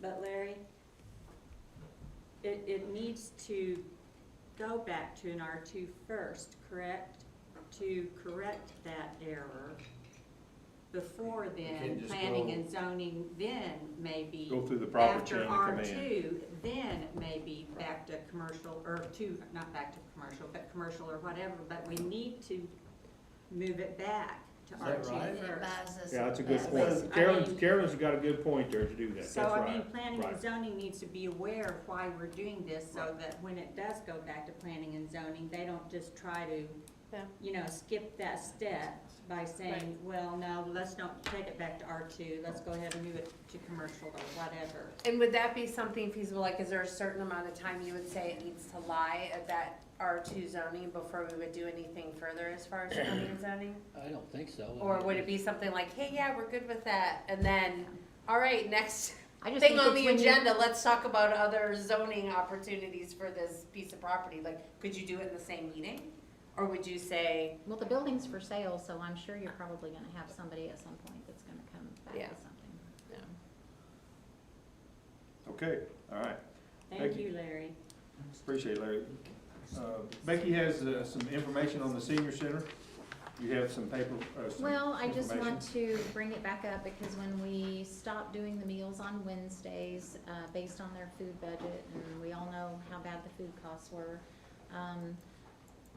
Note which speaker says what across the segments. Speaker 1: but Larry, it, it needs to go back to an R two first, correct? To correct that error before
Speaker 2: can't
Speaker 1: then,
Speaker 2: just
Speaker 1: planning
Speaker 2: go-
Speaker 1: and zoning then maybe.
Speaker 3: Go through the proper chain of command.
Speaker 1: After R two, then maybe back to commercial, or to, not back to commercial, but commercial or whatever, but we need to move it back to
Speaker 2: Is
Speaker 1: R
Speaker 2: that
Speaker 1: two
Speaker 2: right?
Speaker 4: And it
Speaker 1: first.
Speaker 4: buys us.
Speaker 3: Yeah, that's a good
Speaker 1: At least,
Speaker 3: point.
Speaker 1: I
Speaker 3: Carolyn,
Speaker 1: mean-
Speaker 3: Carolyn's got a good point there to do that, that's
Speaker 1: So, I mean,
Speaker 3: right.
Speaker 1: planning and
Speaker 3: right.
Speaker 1: zoning needs to be aware of why we're doing this, so that when it does go back to planning and zoning, they don't just try to,
Speaker 5: Yeah.
Speaker 1: you know, skip that step by saying, well, no, let's not take it back to R two, let's go ahead and move it to commercial or whatever.
Speaker 5: And would that be something feasible, like, is there a certain amount of time you would say it needs to lie at that R two zoning before we would do anything further as far as planning and zoning?
Speaker 6: I don't think so.
Speaker 5: Or would it be something like, hey, yeah, we're good with that, and then, all right, next
Speaker 7: I just
Speaker 5: thing
Speaker 7: think
Speaker 5: on
Speaker 7: it's
Speaker 5: the
Speaker 7: when you-
Speaker 5: agenda, let's talk about other zoning opportunities for this piece of property, like, could you do it in the same meeting? Or would you say,
Speaker 7: Well, the building's for sale, so I'm sure you're probably gonna have somebody at some point that's gonna come back
Speaker 5: Yeah.
Speaker 7: with something.
Speaker 3: Okay, all right,
Speaker 1: Thank
Speaker 3: Thank you.
Speaker 1: you, Larry.
Speaker 3: appreciate it, Larry. Uh, Becky has uh, some information on the senior center. You have some paper, uh, some
Speaker 7: Well, I just
Speaker 3: information.
Speaker 7: want to bring it back up because when we stopped doing the meals on Wednesdays, uh, based on their food budget, and we all know how bad the food costs were. Um,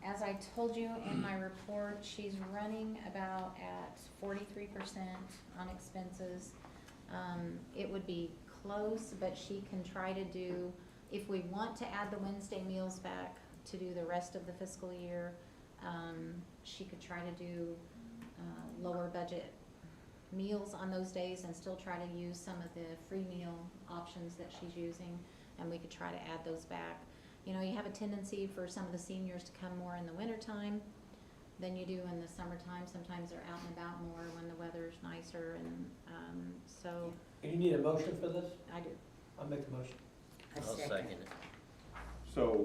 Speaker 7: as I told you in my report, she's running about at forty-three percent on expenses. Um, it would be close, but she can try to do, if we want to add the Wednesday meals back to do the rest of the fiscal year, um, she could try to do uh, lower budget meals on those days and still try to use some of the free meal options that she's using, and we could try to add those back. You know, you have a tendency for some of the seniors to come more in the wintertime than you do in the summertime. Sometimes they're out and about more when the weather's nicer and, um, so
Speaker 8: Do you need a motion for this?
Speaker 7: I do.
Speaker 8: I'll make the motion.
Speaker 6: I'll second it.
Speaker 3: So,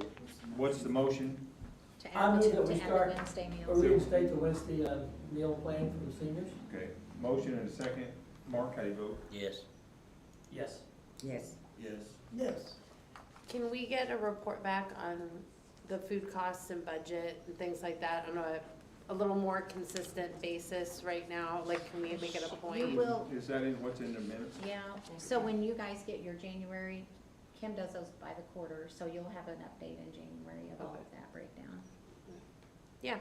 Speaker 3: what's the motion?
Speaker 7: To
Speaker 8: I
Speaker 7: add the,
Speaker 8: move that we
Speaker 7: to add
Speaker 8: start
Speaker 7: the Wednesday
Speaker 8: Or
Speaker 7: meals.
Speaker 8: reinstate the Wednesday uh, meal plan for the seniors?
Speaker 3: Okay, motion and a second. Mark, how do you vote?
Speaker 6: Yes.
Speaker 8: Yes.
Speaker 1: Yes.
Speaker 2: Yes.
Speaker 8: Yes.
Speaker 5: can we get a report back on the food costs and budget and things like that on a, a little more consistent basis right now, like, can we make it a point?
Speaker 7: We will,
Speaker 3: Is that in, what's in the minutes?
Speaker 7: yeah, so when you guys get your January, Kim does those by the quarter, so you'll have an update in January of all of that breakdown.
Speaker 5: Yeah.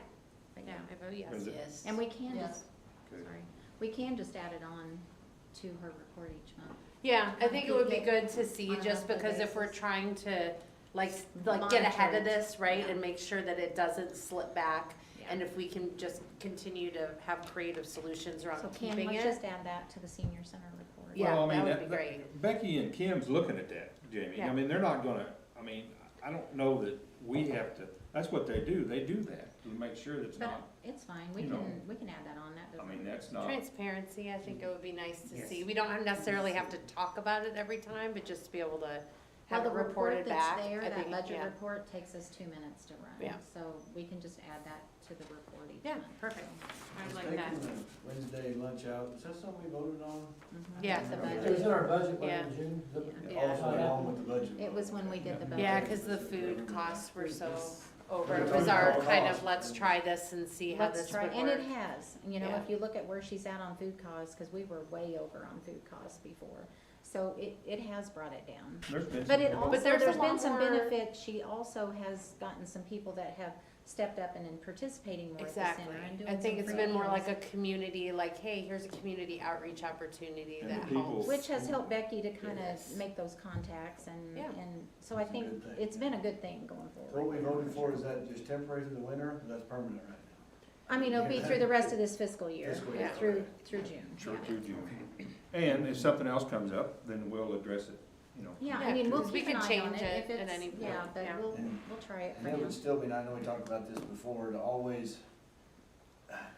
Speaker 7: But
Speaker 5: Yeah,
Speaker 7: yeah.
Speaker 5: I vote yes.
Speaker 3: Is it-
Speaker 4: Yes.
Speaker 7: And we can
Speaker 4: Yeah.
Speaker 7: just,
Speaker 3: Okay.
Speaker 7: sorry, we can just add it on to her report each month.
Speaker 5: Yeah, I think it would be good to see,
Speaker 7: On a
Speaker 5: just
Speaker 7: monthly
Speaker 5: because if we're
Speaker 7: basis.
Speaker 5: trying to, like, like get ahead of
Speaker 7: Monitor it.
Speaker 5: this, right?
Speaker 7: Yeah.
Speaker 5: And make sure that it doesn't slip back, and
Speaker 7: Yeah.
Speaker 5: if we can just continue to have creative solutions around
Speaker 7: So Kim,
Speaker 5: keeping
Speaker 7: let's
Speaker 5: it.
Speaker 7: just add that to the senior center report.
Speaker 5: uh, Yeah,
Speaker 3: Well, I mean,
Speaker 5: that would be great.
Speaker 3: Becky and Kim's looking at that, Jamie. I
Speaker 5: Yeah.
Speaker 3: mean, they're not gonna, I mean, I don't know that we have to, that's what they do. They do that to make sure that's
Speaker 7: But
Speaker 3: not,
Speaker 7: it's fine, we
Speaker 3: you know.
Speaker 7: can, we can add that on, that
Speaker 3: I
Speaker 7: doesn't.
Speaker 3: mean, that's not.
Speaker 5: Transparency, I think it would be nice to
Speaker 8: Yes.
Speaker 5: see. We don't necessarily have to talk about it every time, but just to be able to
Speaker 7: Well,
Speaker 5: have
Speaker 7: the
Speaker 5: it
Speaker 7: report
Speaker 5: reported
Speaker 7: that's
Speaker 5: back.
Speaker 7: there,
Speaker 5: I
Speaker 7: that
Speaker 5: think,
Speaker 7: budget
Speaker 5: yeah.
Speaker 7: report takes us two minutes to run.
Speaker 5: Yeah.
Speaker 7: So we can just add that to the report each
Speaker 5: Yeah,
Speaker 7: month.
Speaker 5: perfect. I like
Speaker 2: Taking
Speaker 5: that.
Speaker 2: the Wednesday lunch out, is that something we voted on?
Speaker 7: Mhm.
Speaker 5: Yeah.
Speaker 7: The
Speaker 2: Okay.
Speaker 8: It was in
Speaker 7: budget,
Speaker 8: our budget plan
Speaker 5: Yeah.
Speaker 8: in June. the-
Speaker 5: Yeah.
Speaker 2: Also along with the budget.
Speaker 7: it was when we did the budget.
Speaker 5: Yeah, because the food costs were so over.
Speaker 2: Yeah.
Speaker 5: It was our
Speaker 2: Total
Speaker 5: kind
Speaker 2: cost.
Speaker 5: of, let's try this and see how
Speaker 7: Let's
Speaker 5: this
Speaker 7: try,
Speaker 5: would
Speaker 7: and
Speaker 5: work.
Speaker 7: it has, you know,
Speaker 5: Yeah.
Speaker 7: if you look at where she's at on food costs, because we were way over on food costs before. So it, it has brought it down.
Speaker 3: There's been
Speaker 7: But it
Speaker 3: some-
Speaker 7: also,
Speaker 5: there's a
Speaker 7: there's been
Speaker 5: lot
Speaker 7: some
Speaker 5: more-
Speaker 7: benefit, she also has gotten some people that have stepped up and in participating more at the
Speaker 5: Exactly.
Speaker 7: center and doing
Speaker 5: I think
Speaker 7: some
Speaker 5: it's
Speaker 7: free
Speaker 5: been more
Speaker 7: meals,
Speaker 5: like a community, like, hey, here's a community outreach opportunity
Speaker 3: And the
Speaker 5: that
Speaker 3: people-
Speaker 5: helps.
Speaker 7: Which has helped Becky to kind
Speaker 5: Yes.
Speaker 7: of make those contacts and,
Speaker 5: Yeah.
Speaker 7: and, so I
Speaker 2: It's a
Speaker 7: think
Speaker 2: good thing.
Speaker 7: it's been a good thing going
Speaker 2: What we
Speaker 7: forward.
Speaker 2: voted for, is that just temporary through the winter, or that's permanent right now?
Speaker 7: I mean, it'll be through the rest of this fiscal year,
Speaker 2: Fiscal
Speaker 5: year.
Speaker 7: through, through June.
Speaker 3: Sure,
Speaker 7: yeah.
Speaker 3: do, do. And if something else comes up, then we'll address it, you know.
Speaker 7: Yeah,
Speaker 5: Yeah,
Speaker 7: I mean, we'll
Speaker 5: 'cause we
Speaker 7: keep an eye
Speaker 5: can
Speaker 7: on it
Speaker 5: change it
Speaker 7: if
Speaker 5: at any
Speaker 7: it's,
Speaker 5: point,
Speaker 7: yeah, but
Speaker 5: yeah.
Speaker 7: we'll,
Speaker 2: And-
Speaker 7: we'll try it
Speaker 2: And
Speaker 7: for
Speaker 2: it
Speaker 7: now.
Speaker 2: would still be, and I know we talked about this before, to always,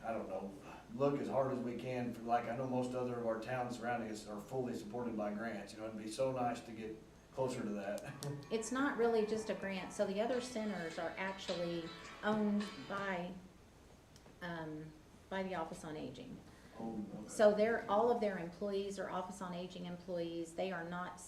Speaker 2: I don't know, look as hard as we can for, like, I know most other of our towns surrounding us are fully supported by grants, you know, it'd be so nice to get closer to that.
Speaker 7: It's not really just a grant, so the other centers are actually owned by, um, by the Office on Aging.
Speaker 2: Oh, okay.
Speaker 7: So they're, all of their employees are Office on Aging employees, they are not